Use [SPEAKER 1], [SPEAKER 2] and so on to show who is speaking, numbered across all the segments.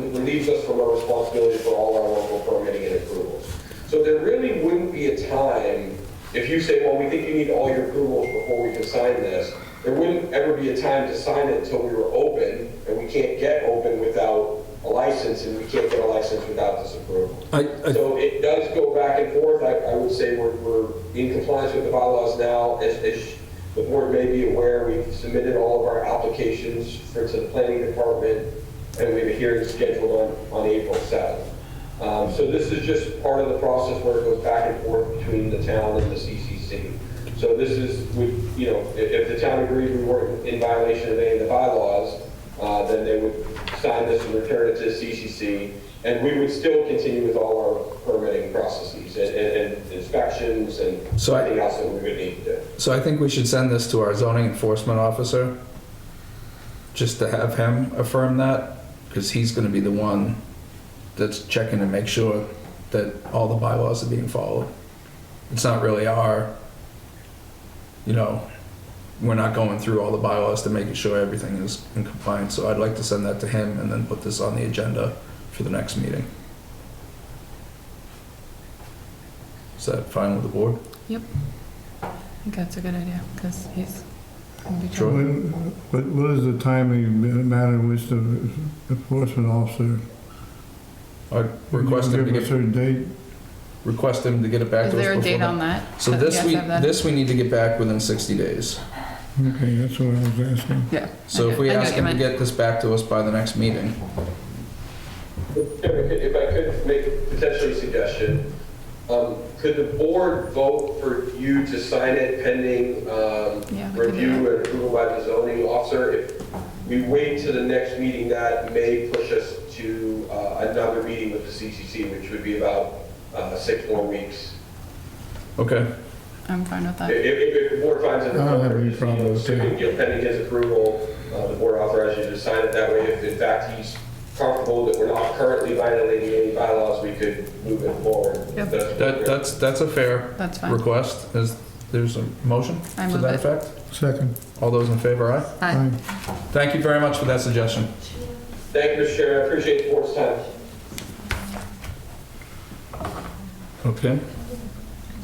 [SPEAKER 1] relieves us from our responsibility for all our local permitting and approvals. So there really wouldn't be a time, if you say, well, we think you need all your approvals before we can sign this, there wouldn't ever be a time to sign it until we were open, and we can't get open without a license, and we can't get a license without this approval.
[SPEAKER 2] I, I,
[SPEAKER 1] So it does go back and forth. I, I would say we're, we're in compliance with the bylaws now. As, as the board may be aware, we've submitted all of our applications for to the planning department, and we have a hearing scheduled on, on April 7th. Um, so this is just part of the process where it goes back and forth between the town and the CCC. So this is, we, you know, if, if the town agreed we weren't in violation of any of the bylaws, uh, then they would sign this and return it to CCC, and we would still continue with all our permitting processes and- and and inspections and
[SPEAKER 2] So I-
[SPEAKER 1] anything else that we would need to.
[SPEAKER 2] so I think we should send this to our zoning enforcement officer, just to have him affirm that, because he's gonna be the one that's checking to make sure that all the bylaws are being followed. It's not really our, you know, we're not going through all the bylaws to making sure everything is in compliance, so I'd like to send that to him and then put this on the agenda for the next meeting. Is that fine with the board?
[SPEAKER 3] I think that's a good idea, because he's gonna be
[SPEAKER 2] Sure.
[SPEAKER 3] trying.
[SPEAKER 4] What, what is the timing matter in which the enforcement officer?
[SPEAKER 2] I request him to
[SPEAKER 4] Give a
[SPEAKER 2] get,
[SPEAKER 4] certain date?
[SPEAKER 2] request him to get it back
[SPEAKER 3] Is
[SPEAKER 2] to us
[SPEAKER 3] there a
[SPEAKER 2] before
[SPEAKER 3] date
[SPEAKER 2] the-
[SPEAKER 3] on that?
[SPEAKER 2] So
[SPEAKER 3] That
[SPEAKER 2] this
[SPEAKER 3] you
[SPEAKER 2] we,
[SPEAKER 3] have to have that?
[SPEAKER 2] this we need to get back within 60 days.
[SPEAKER 4] Okay, that's what I was asking.
[SPEAKER 3] Yeah.
[SPEAKER 2] So
[SPEAKER 3] I
[SPEAKER 2] if we
[SPEAKER 3] get- I get
[SPEAKER 2] ask
[SPEAKER 3] what
[SPEAKER 2] him to
[SPEAKER 3] you meant.
[SPEAKER 2] get this back to us by the next meeting,
[SPEAKER 1] If I could- if I could make potentially a suggestion, um, could the board vote for you to sign it pending um,
[SPEAKER 3] Yeah, we can do
[SPEAKER 1] review and approval by the zoning officer? If we wait to the next meeting, that may push us to uh, another meeting with the CCC, which would be about uh, six more weeks.
[SPEAKER 2] okay,
[SPEAKER 3] I'm fine with that.
[SPEAKER 1] If, if if the board finds it
[SPEAKER 4] I don't have
[SPEAKER 1] appropriate,
[SPEAKER 4] any
[SPEAKER 1] just, you
[SPEAKER 4] problem
[SPEAKER 1] know,
[SPEAKER 4] with that.
[SPEAKER 1] assuming, you know, pending his approval, uh, the board authorizes you to sign it that way. If in fact he's comfortable that we're not currently violating any bylaws, we could move it forward.
[SPEAKER 3] Yep.
[SPEAKER 1] That's what
[SPEAKER 2] that,
[SPEAKER 1] we're-
[SPEAKER 2] that's, that's a fair
[SPEAKER 3] That's fine.
[SPEAKER 2] request, is, there's a motion
[SPEAKER 3] I
[SPEAKER 2] to
[SPEAKER 3] move
[SPEAKER 2] that
[SPEAKER 3] it.
[SPEAKER 2] effect?
[SPEAKER 4] Second.
[SPEAKER 2] All those in favor, aye?
[SPEAKER 3] Aye.
[SPEAKER 2] Thank you very much for that suggestion.
[SPEAKER 1] Thank you, Mr. Chairman, I appreciate the board's time.
[SPEAKER 2] Okay.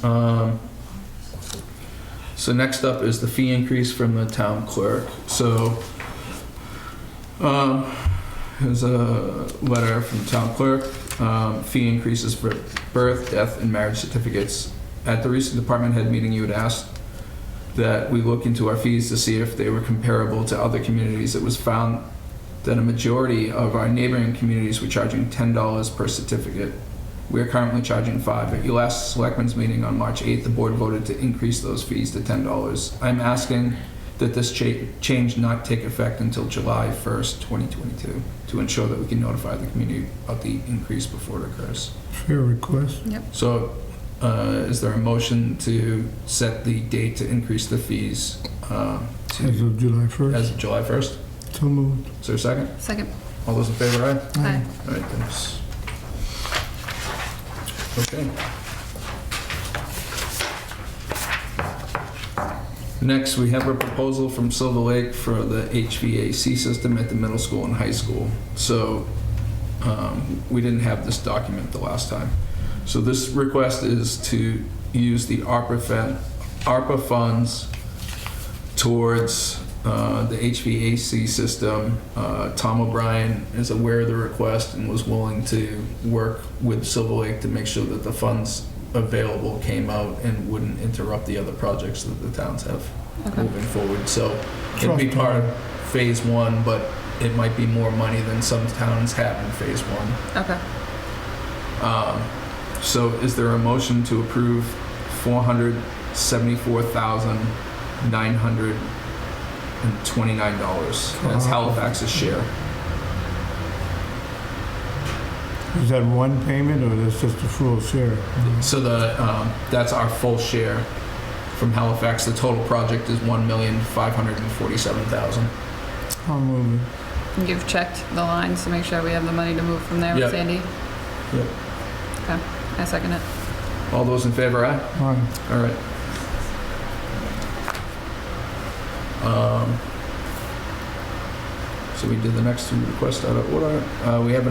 [SPEAKER 2] Um, So next up is the fee increase from the town clerk. So um, here's a letter from the town clerk. Um, Fee increases for birth, death, and marriage certificates. At the recent department head meeting, you had asked that we look into our fees to see if they were comparable to other communities. It was found that a majority of our neighboring communities were charging $10 per certificate. We are currently charging five. At your last selectmen's meeting on March 8th, the board voted to increase those fees to $10. I'm asking that this cha- change not take effect until July 1st, 2022, to ensure that we can notify the community about the increase before it occurs.
[SPEAKER 4] Fair request.
[SPEAKER 2] So, uh, is there a motion to set the date to increase the fees uh,
[SPEAKER 4] As
[SPEAKER 2] to,
[SPEAKER 4] of July
[SPEAKER 2] as
[SPEAKER 4] 1st.
[SPEAKER 2] of July 1st?
[SPEAKER 4] So moved.
[SPEAKER 2] Is there a second?
[SPEAKER 3] Second.
[SPEAKER 2] All those in favor, aye?
[SPEAKER 3] Aye.
[SPEAKER 2] All right, thanks. Okay. Next, we have a proposal from Silver Lake for the HVAC system at the middle school and high school. So um, we didn't have this document the last time. So this request is to use the ARPA fund, ARPA funds towards uh, the HVAC system. Uh, Tom O'Brien is aware of the request and was willing to work with Silver Lake to make sure that the funds available came out and wouldn't interrupt the other projects that the towns have
[SPEAKER 3] Okay.
[SPEAKER 2] moving forward. So it'd be
[SPEAKER 4] Trust
[SPEAKER 2] part of phase one, but it might be more money than some towns have in phase one.
[SPEAKER 3] Okay.
[SPEAKER 2] Um, So is there a motion to approve four hundred seventy-four thousand nine hundred and twenty-nine dollars? That's Halifax's share.
[SPEAKER 4] Is that one payment or that's just the full share?
[SPEAKER 2] So the, um, that's our full share from Halifax. The total project is one million five hundred and forty-seven thousand.
[SPEAKER 4] I'll move it.
[SPEAKER 3] And You've checked the lines to make sure we have the money to move from there,
[SPEAKER 2] Yep.
[SPEAKER 3] Sandy?
[SPEAKER 2] Yep.
[SPEAKER 3] Okay, I second it.
[SPEAKER 2] All those in favor, aye?
[SPEAKER 4] Aye.
[SPEAKER 2] All right. Um, So we did the next two requests out of order. Uh, We have an